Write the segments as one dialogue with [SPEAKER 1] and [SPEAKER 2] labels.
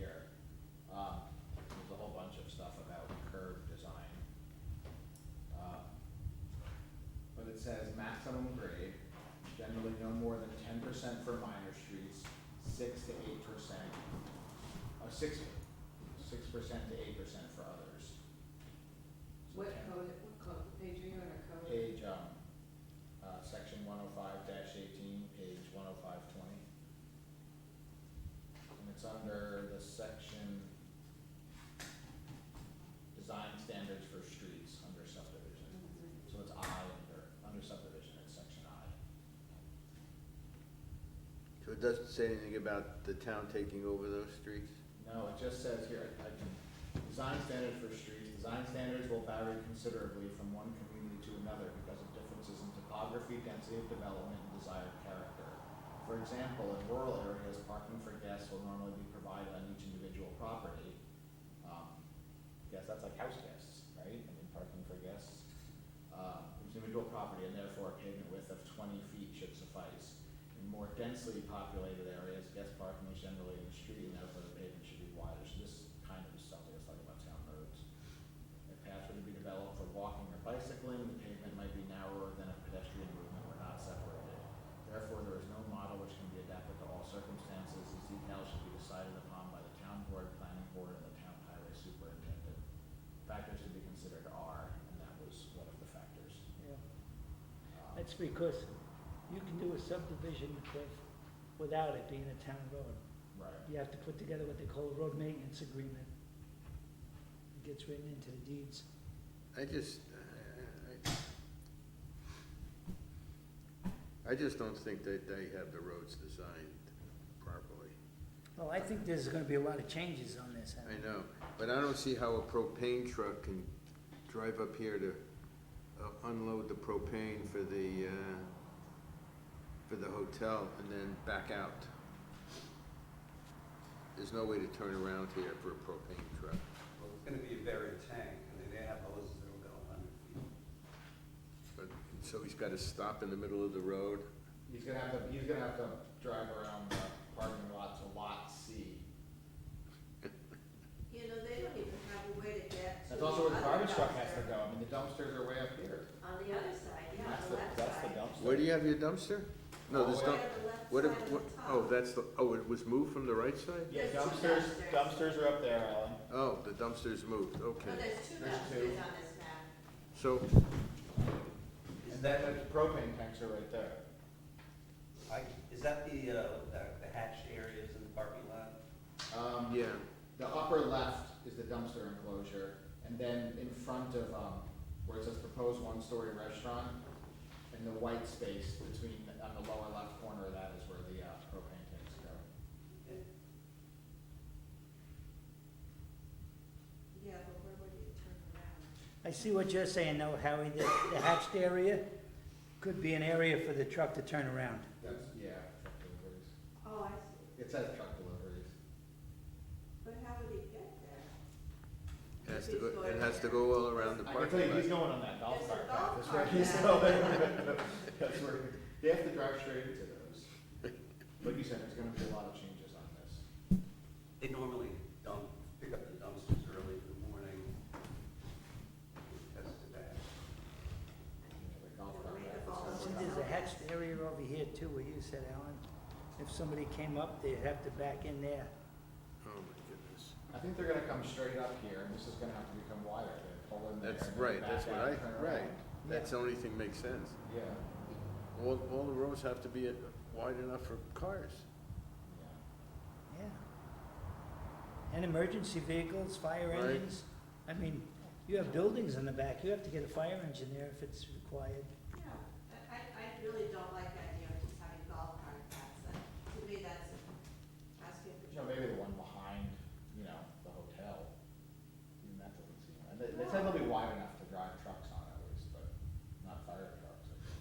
[SPEAKER 1] Um, Um, percent for minor streets, six to eight percent, or six, six percent to eight percent for others. So
[SPEAKER 2] What
[SPEAKER 1] ten-
[SPEAKER 2] code, what code, page are you on, or code?
[SPEAKER 1] Page, um, uh, section one oh five eighteen, page one oh five twenty. And it's under the section design standards for streets under subdivision.
[SPEAKER 2] Mhm.
[SPEAKER 1] So it's I under, under subdivision, it's section I.
[SPEAKER 3] So it doesn't say anything about the town taking over those streets?
[SPEAKER 1] No, it just says here, I can, design standards for streets, design standards will vary considerably from one community to another because of differences in topography, density of development, and desired character. For example, in rural areas, parking for guests will normally be provided on each individual property. Um, guess that's like house guests, right? I mean, parking for guests. Uh, each individual property and therefore a pavement width of twenty feet should suffice. In more densely populated areas, guest parking is generally in the street and therefore the pavement should be wider. So this kind of is something that's like about town roads. If paths were to be developed for walking or bicycling, the pavement might be narrower than if pedestrian movement were not separated. Therefore, there is no model which can be adapted to all circumstances. These details should be decided upon by the town board, planning board, and the town highway superintendent. Factors to be considered are, and that was one of the factors.
[SPEAKER 4] Yeah,
[SPEAKER 1] Um,
[SPEAKER 4] That's because you can do a subdivision with, without it being a town road.
[SPEAKER 1] Right,
[SPEAKER 4] You have to put together what they call a road maintenance agreement. It gets written into the deeds.
[SPEAKER 3] I just, I- I, I just don't think that they have the roads designed properly.
[SPEAKER 4] Well, I think there's gonna be a lot of changes on this. Alan.
[SPEAKER 3] I know, but I don't see how a propane truck can drive up here to uh, unload the propane for the, uh, for the hotel and then back out. There's no way to turn around here for a propane truck.
[SPEAKER 5] Well, it's gonna be a buried tank, I mean, they have those that are about hundred feet.
[SPEAKER 3] But, so he's gotta stop in the middle of the road?
[SPEAKER 1] he's gonna have to, he's gonna have to drive around the parking lot to lot C.
[SPEAKER 2] You know, they don't even have a way to get to
[SPEAKER 1] That's
[SPEAKER 2] the
[SPEAKER 1] also where the
[SPEAKER 2] other
[SPEAKER 1] garbage truck has to
[SPEAKER 2] dumpster.
[SPEAKER 1] go, I mean, the dumpsters are way up here.
[SPEAKER 2] On the other side, yeah,
[SPEAKER 1] That's
[SPEAKER 2] on the left side.
[SPEAKER 1] That's the dumpster.
[SPEAKER 3] Where do you have your dumpster? No, there's
[SPEAKER 1] Oh,
[SPEAKER 2] Right
[SPEAKER 3] dump,
[SPEAKER 2] on the left
[SPEAKER 3] what, if-
[SPEAKER 2] side of
[SPEAKER 3] what,
[SPEAKER 2] the
[SPEAKER 3] oh,
[SPEAKER 2] top.
[SPEAKER 3] that's the, oh, it was moved from the right side?
[SPEAKER 1] Yeah,
[SPEAKER 2] There's two
[SPEAKER 1] dumpsters,
[SPEAKER 2] dumpsters.
[SPEAKER 1] dumpsters are up there, Alan.
[SPEAKER 3] Oh, the dumpster's moved, okay.
[SPEAKER 2] No, Oh, there's two
[SPEAKER 1] There's two.
[SPEAKER 2] dumpsters on this map.
[SPEAKER 3] So,
[SPEAKER 1] And then the propane tanks are right there.
[SPEAKER 5] I, is that the, uh, the- the hatched areas in the parking lot?
[SPEAKER 1] Um,
[SPEAKER 3] yeah,
[SPEAKER 1] The upper left is the dumpster enclosure, and then in front of, um, where it says proposed one-story restaurant, and the white space between, on the lower left corner of that is where the, uh, propane tanks go.
[SPEAKER 2] Yeah, but where would you turn around?
[SPEAKER 4] I see what you're saying though, Howie, the, the hatched area could be an area for the truck to turn around.
[SPEAKER 1] That's, yeah, truck deliveries.
[SPEAKER 2] Oh, I see,
[SPEAKER 1] It says truck deliveries.
[SPEAKER 2] but how would he get there?
[SPEAKER 3] it has to go, it has to go all around the
[SPEAKER 1] I can tell you, he's
[SPEAKER 3] parking lot.
[SPEAKER 1] going on that golf
[SPEAKER 2] There's a
[SPEAKER 1] cart
[SPEAKER 2] golf
[SPEAKER 1] path, that's where
[SPEAKER 2] cart
[SPEAKER 1] he's
[SPEAKER 2] path.
[SPEAKER 1] going. That's where, they have to drive straight into those. Like you said, there's gonna be a lot of changes on this.
[SPEAKER 5] They normally dump, pick up the dumpsters early in the morning. That's the bad.
[SPEAKER 1] You know, The golf cart
[SPEAKER 2] Right,
[SPEAKER 1] path is
[SPEAKER 2] the
[SPEAKER 1] gonna
[SPEAKER 2] balls.
[SPEAKER 4] See,
[SPEAKER 1] be-
[SPEAKER 4] there's a hatched area over here too, where you said, Alan, if somebody came up, they'd have to back in there.
[SPEAKER 3] Oh, my
[SPEAKER 1] I think they're gonna come straight up here, and this is gonna have to become wider, they pull in there. and
[SPEAKER 3] goodness. That's
[SPEAKER 1] then
[SPEAKER 3] right,
[SPEAKER 1] back
[SPEAKER 3] that's what
[SPEAKER 1] out
[SPEAKER 3] I,
[SPEAKER 1] and turn
[SPEAKER 3] right,
[SPEAKER 1] around.
[SPEAKER 3] that's the only thing makes sense.
[SPEAKER 1] Yeah,
[SPEAKER 3] All, all the roads have to be uh, wide enough for cars.
[SPEAKER 1] yeah.
[SPEAKER 4] Yeah. And emergency vehicles, fire
[SPEAKER 3] Right.
[SPEAKER 4] engines. I mean, you have buildings in the back, you have to get a fire engine there if it's required.
[SPEAKER 2] Yeah, I, I, I really don't like the idea of just having golf cart paths, That- to me, that's asking for
[SPEAKER 1] You know, maybe the one behind, you know, the hotel, even that doesn't seem, and they, they said they'll be wide enough to drive trucks on at least, but not fire trucks, I guess.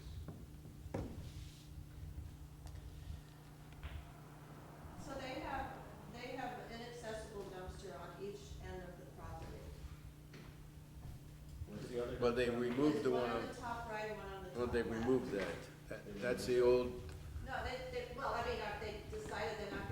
[SPEAKER 2] So they have, they have an inaccessible dumpster on each end of the property.
[SPEAKER 1] Where's the other?
[SPEAKER 3] Well, they removed the one,
[SPEAKER 2] There's one on
[SPEAKER 3] on-
[SPEAKER 2] the top right, one on the top
[SPEAKER 3] well, they
[SPEAKER 2] left.
[SPEAKER 3] removed that. That- That's the old,
[SPEAKER 2] No, they, they, well, I mean, uh, they decided they're not